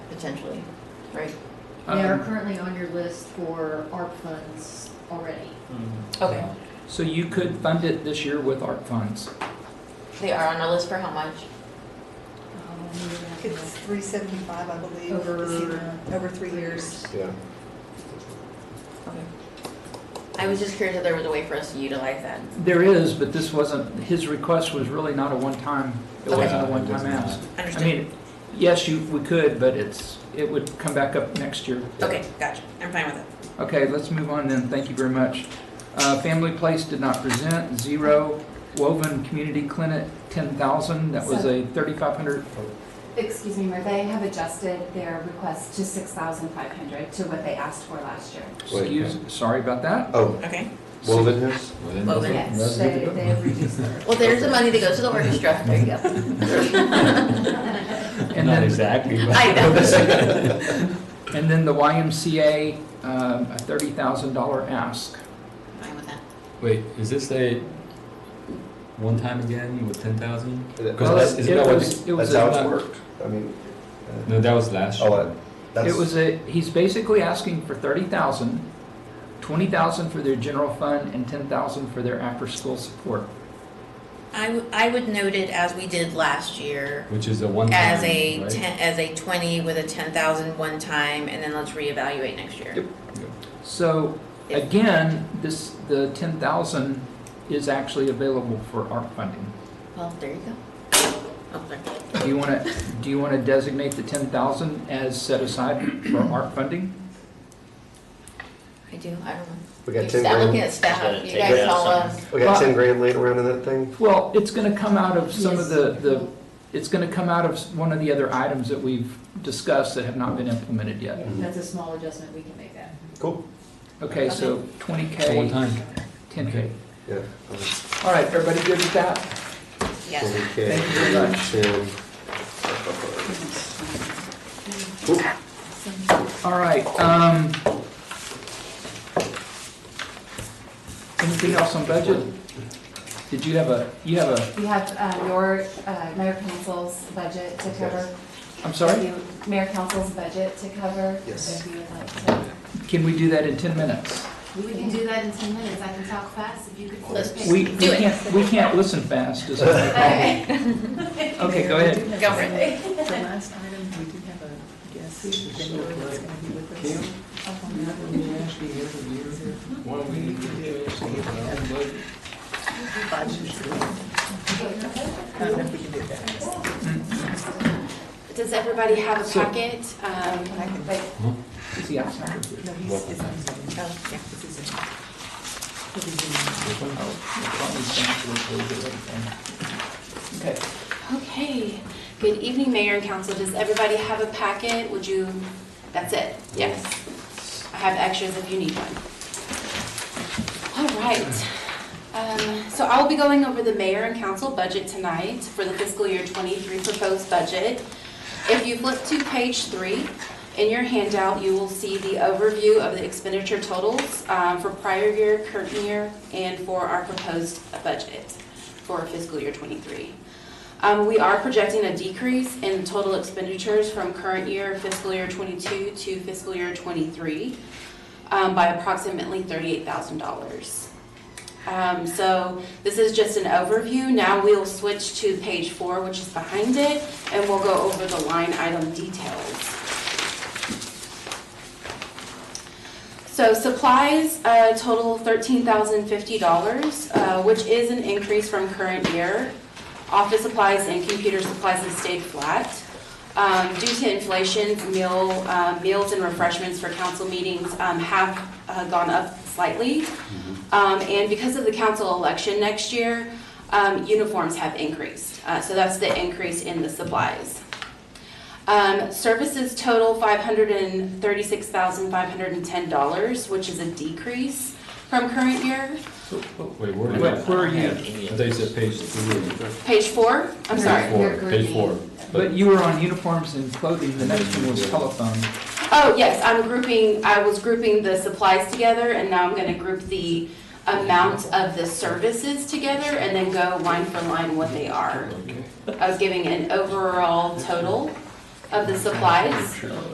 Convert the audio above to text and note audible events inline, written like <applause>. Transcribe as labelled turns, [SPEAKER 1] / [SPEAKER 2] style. [SPEAKER 1] potentially, right?
[SPEAKER 2] They are
[SPEAKER 3] Um,
[SPEAKER 2] currently on your list for ARP funds already.
[SPEAKER 3] Mm-hmm.
[SPEAKER 1] Okay,
[SPEAKER 3] So you could fund it this year with ARP funds.
[SPEAKER 1] they are on our list for how much?
[SPEAKER 2] Um, we would have to look
[SPEAKER 4] It's three seventy-five, I believe,
[SPEAKER 2] Over-
[SPEAKER 4] this year, over three
[SPEAKER 2] for
[SPEAKER 4] years.
[SPEAKER 5] Yeah.
[SPEAKER 1] Okay. I was just curious if there was a way for us to utilize that.
[SPEAKER 3] There is, but this wasn't, his request was really not a one-time, it
[SPEAKER 1] Okay.
[SPEAKER 3] wasn't
[SPEAKER 5] Yeah,
[SPEAKER 3] a
[SPEAKER 5] it was
[SPEAKER 3] one-time
[SPEAKER 5] not.
[SPEAKER 3] ask. I
[SPEAKER 1] Understood.
[SPEAKER 3] mean, yes, you, we could, but it's, it would come back up next year.
[SPEAKER 1] Okay, gotcha. I'm fine with it.
[SPEAKER 3] Okay, let's move on then, thank you very much. Uh, Family Place did not present, zero. Woven Community Clinic, 10,000, that was a 3,500,
[SPEAKER 6] Excuse me, Mayor, they have adjusted their request to six thousand five hundred to what they asked for last year.
[SPEAKER 5] Wait,
[SPEAKER 3] excuse, sorry about
[SPEAKER 5] <laughs>
[SPEAKER 3] that.
[SPEAKER 5] Oh,
[SPEAKER 1] Okay.
[SPEAKER 5] Woven Hills?
[SPEAKER 1] Well, then-
[SPEAKER 6] Yes, they, they have reduced their.
[SPEAKER 3] <laughs>
[SPEAKER 1] Well, there's the money that goes to the <laughs> orchestra. There you go.
[SPEAKER 3] And then-
[SPEAKER 7] exactly. but-
[SPEAKER 1] I <laughs> know.
[SPEAKER 3] And then the YMCA, um, a $30,000 ask.
[SPEAKER 1] Fine with that.
[SPEAKER 7] <laughs> Wait, is this a one time again with ten thousand?
[SPEAKER 3] Well,
[SPEAKER 7] that's- isn't that what
[SPEAKER 3] was- it was
[SPEAKER 5] That's how
[SPEAKER 3] a-
[SPEAKER 5] it's worked. I mean, uh,
[SPEAKER 7] No, that was last year.
[SPEAKER 5] oh, uh, that's.
[SPEAKER 3] It was a, he's basically asking for thirty thousand, twenty thousand for their general fund and ten thousand for their after-school support.
[SPEAKER 1] I, w- I would note it as we did last year,
[SPEAKER 7] Which is a one time.
[SPEAKER 1] as a ten, as a twenty with a ten thousand one time, and then let's reevaluate next year.
[SPEAKER 3] Yep. So again, this, the ten thousand is actually available for ARP funding.
[SPEAKER 1] Well, there you go. Oh, sorry.
[SPEAKER 3] Do you wanna, do you wanna designate the ten thousand as set aside for ARP funding?
[SPEAKER 1] I do, I don't know.
[SPEAKER 5] We got
[SPEAKER 1] You
[SPEAKER 5] 10
[SPEAKER 1] stop
[SPEAKER 5] grand.
[SPEAKER 1] looking at
[SPEAKER 8] Gotta
[SPEAKER 1] staff, you
[SPEAKER 8] take
[SPEAKER 1] guys
[SPEAKER 8] it out
[SPEAKER 1] all, uh,
[SPEAKER 8] somewhere.
[SPEAKER 5] We got ten grand laying around in that thing?
[SPEAKER 3] Well, it's gonna come out of some of
[SPEAKER 2] Yes.
[SPEAKER 3] the, the, it's gonna come out of s- one of the other items that we've discussed that have not been implemented yet.
[SPEAKER 2] at- That's a small adjustment, we can make that.
[SPEAKER 5] Cool.
[SPEAKER 3] Okay, so twenty
[SPEAKER 7] One
[SPEAKER 3] K,
[SPEAKER 7] time.
[SPEAKER 3] ten K.
[SPEAKER 5] Yeah.
[SPEAKER 3] All right, everybody good with that?
[SPEAKER 1] yes.
[SPEAKER 3] Thank you very much. All right, um. Anything else on budget? Did you have a, you have a,
[SPEAKER 6] We have, uh, your, uh, mayor council's budget to cover.
[SPEAKER 3] I'm sorry,
[SPEAKER 6] If you- Mayor council's budget to cover.
[SPEAKER 5] Yes.
[SPEAKER 6] If you would like to.
[SPEAKER 3] can we do that in ten minutes?
[SPEAKER 9] We can do that in ten minutes, I can talk fast if you could flip
[SPEAKER 1] Let's
[SPEAKER 9] it.
[SPEAKER 3] We, we
[SPEAKER 1] Do it.
[SPEAKER 3] can't, we can't listen fast, is what I call it.
[SPEAKER 9] <laughs>
[SPEAKER 1] <laughs>
[SPEAKER 9] Okay.
[SPEAKER 3] Okay, go ahead.
[SPEAKER 1] Go for it.
[SPEAKER 4] The last item, we do have a guest, who's been over, that's gonna be with us. I don't know if we can do that.
[SPEAKER 9] <laughs> Does everybody have a
[SPEAKER 3] So-
[SPEAKER 9] packet? Um, like,
[SPEAKER 3] Is he outside or here?
[SPEAKER 4] No, he's, it's on Zoom.
[SPEAKER 1] Oh, yeah.
[SPEAKER 4] This is Zoom. He'll be Zooming.
[SPEAKER 3] Okay.
[SPEAKER 9] Okay, good evening, Mayor and Council, does everybody have a packet? Would you, that's it, yes. I have extras if you need one. All right, Um, so I will be going over the Mayor and Council budget tonight for the fiscal year 23 proposed budget. If you flip to page three, in your handout, you will see the overview of the expenditure totals um, for prior year, current year, and for our proposed budget for fiscal year 23. Um, We are projecting a decrease in total expenditures from current year fiscal year 22 to fiscal year 23 um, by approximately $38,000. Um, So this is just an overview. Now we'll switch to page four, which is behind it, and we'll go over the line item details. So supplies uh, total $13,050, uh, which is an increase from current year. Office supplies and computer supplies have stayed flat. Um, Due to inflation, meal, uh, meals and refreshments for council meetings um, have uh, gone up slightly. Um, And because of the council election next year, um, uniforms have increased. Uh, So that's the increase in the supplies. Um, services total five hundred and thirty-six thousand five hundred and ten dollars, which is a decrease from current year.
[SPEAKER 7] Wait, where?
[SPEAKER 3] Wait, where are you?
[SPEAKER 7] I thought you said page three.
[SPEAKER 9] Page four, I'm sorry.
[SPEAKER 7] Four,
[SPEAKER 6] You're
[SPEAKER 7] page four.
[SPEAKER 6] grouping.
[SPEAKER 3] But you were on uniforms and clothing, the next one was telephone.
[SPEAKER 9] Oh, yes, I'm grouping, I was grouping the supplies together, and now I'm gonna group the amount of the services together, and then go line for line what they are. I was giving an overall total of the supplies.